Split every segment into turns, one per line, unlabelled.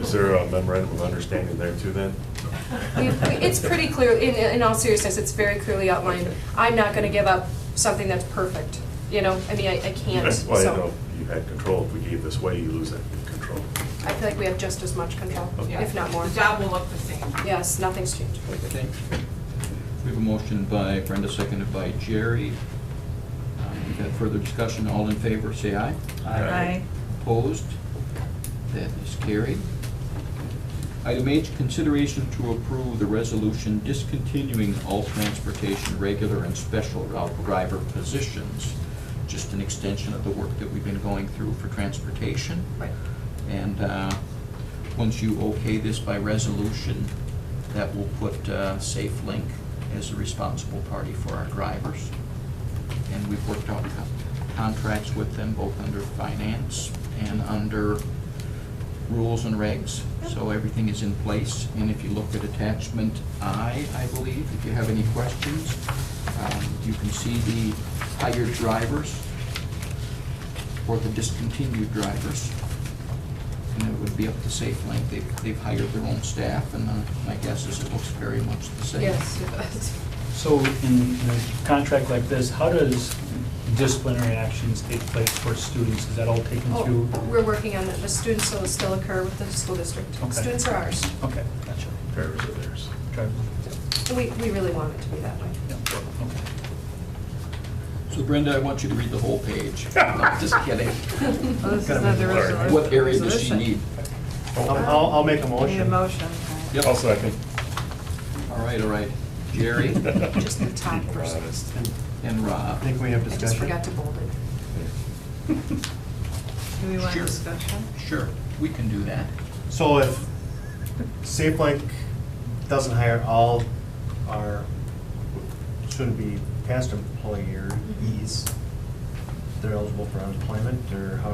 Is there a memorandum of understanding there too then?
We- we- It's pretty clear, in, in all seriousness, it's very clearly outlined.
Okay.
I'm not gonna give up something that's perfect, you know, I mean, I, I can't, so.
Well, you know, you had control. If we gave this way, you lose that control.
I feel like we have just as much control,
Okay.
if not more.
The job will look the same.
Yes, nothing's changed.
Okay. We have a motion by Brenda, seconded by Jerry. Um, We've had further discussion, all in favor, say aye.
Aye.
Opposed? That is carried. Item H, consideration to approve the resolution discontinuing all transportation regular and special route driver positions. Just an extension of the work that we've been going through for transportation.
Right.
And uh, once you okay this by resolution, that will put uh, Safe Link as the responsible party for our drivers. And we've worked out co- contracts with them, both under finance and under rules and regs. So everything is in place. And if you look at attachment I, I believe, if you have any questions, um, you can see the hired drivers or the discontinued drivers. And it would be up to Safe Link. They've, they've hired their own staff, and uh, my guess is it looks very much the same.
Yes, it does.
So in a contract like this, how does disciplinary actions take place for students? Is that all taken
Oh,
through?
we're working on it, the students will still occur with the school district.
Okay.
Students are ours,
Okay, gotcha.
Drivers are theirs.
Drive-
and we, we really want it to be that way.
yeah, okay.
So Brenda, I want you to read the whole page. I'm Just kidding.
Well, this is
Gotta
not
be
the
blurred.
resolution.
What area does she need?
Um,
I'll, I'll make a
We Need a
motion.
motion.
Yep.
I'll second.
All right, all right. Jerry
Just the top
Keep it
person.
honest.
and
I
Rob.
think we have
I just
discussion.
forgot to bold it.
Do we want
Sure.
discussion?
Sure, we can do that.
So if Safe Link doesn't hire all our, shouldn't be past employees, they're eligible for unemployment, or how,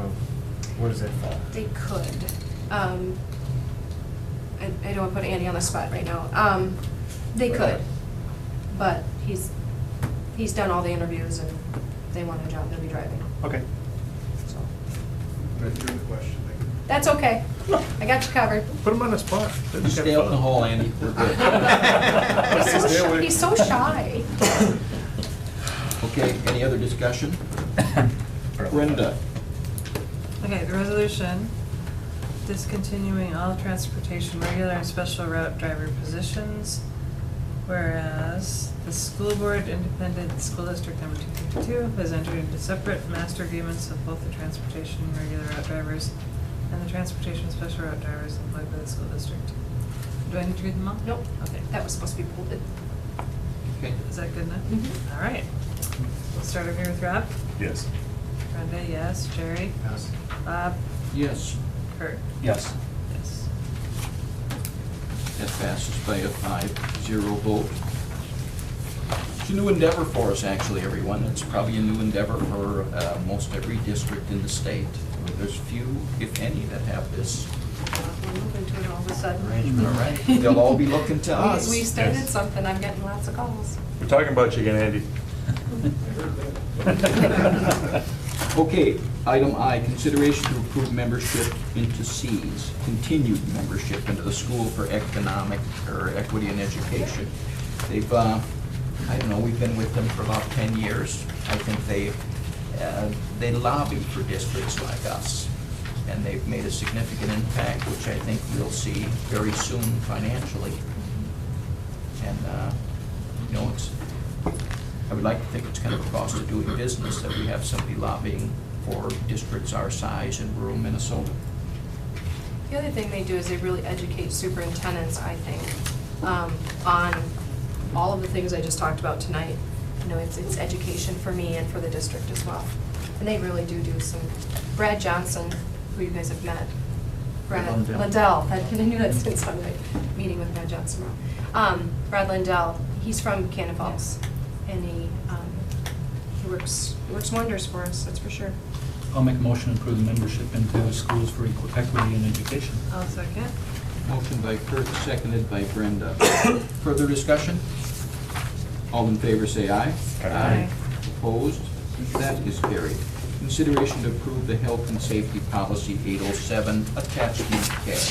where does that fall?
They could. Um, I, I don't want to put Andy on the spot right now. Um, they could, but he's, he's done all the interviews and they want a job, they'll be driving,
Okay.
so. That's okay. I got you covered.
Put them on the spot. They've got
Stay out in the
fun.
hall, Andy. We're good.
He's so
Stay
shy.
away.
He's so shy.
Okay, any other discussion? Brenda,
Okay, the resolution discontinuing all transportation regular and special route driver positions. Whereas the school board, independent school district number two fifty-two, has entered into separate master agreements with both the transportation regular route drivers and the transportation special route drivers employed by the school district. Do I need to read them all?
Nope,
Okay.
that was supposed to be bolded.
okay,
Is that good enough?
Mhm.
All right. We'll start over here with Rob.
Yes.
Brenda, yes. Jerry?
Yes.
Bob?
yes,
Kurt?
Yes.
Yes.
that passes by a five zero vote. It's a new endeavor for us, actually, everyone. It's probably a new endeavor for uh, most every district in the state. There's few, if any, that have this
We're moving to it all of a
arrangement, all
sudden.
right? They'll all be looking to us.
We we started
Yes.
something, I'm getting lots of calls.
We're talking about you again, Andy.
Okay, item I, consideration to approve membership into C's, continued membership into the School for Economic, or Equity in Education. They've, uh, I don't know, we've been with them for about 10 years. I think they, uh, they lobby for districts like us, and they've made a significant impact, which I think we'll see very soon financially. And, uh, you know, it's, I would like to think it's kind of a cost of doing business that we have somebody lobbying for districts our size in rural Minnesota.
The other thing they do is they really educate superintendents, I think, um, on all of the things I just talked about tonight. You know, it's, it's education for me and for the district as well. And they really do do some, Brad Johnson, who you guys have met, Brad
Lundell.
Lindell, I knew that since I'm like, meeting with Brad Johnson. tomorrow. Um, Brad Lindell, he's from Cannon Falls, and he, um, he works, works wonders for us, that's for sure.
I'll make a motion to approve the membership into Schools for Equal Equity in Education.
I'll second.
Motion by Kurt, seconded by Brenda. Further discussion? All in favor, say aye.
Aye.
Opposed? That is carried. Consideration to approve the Health and Safety Policy 807, attachment K.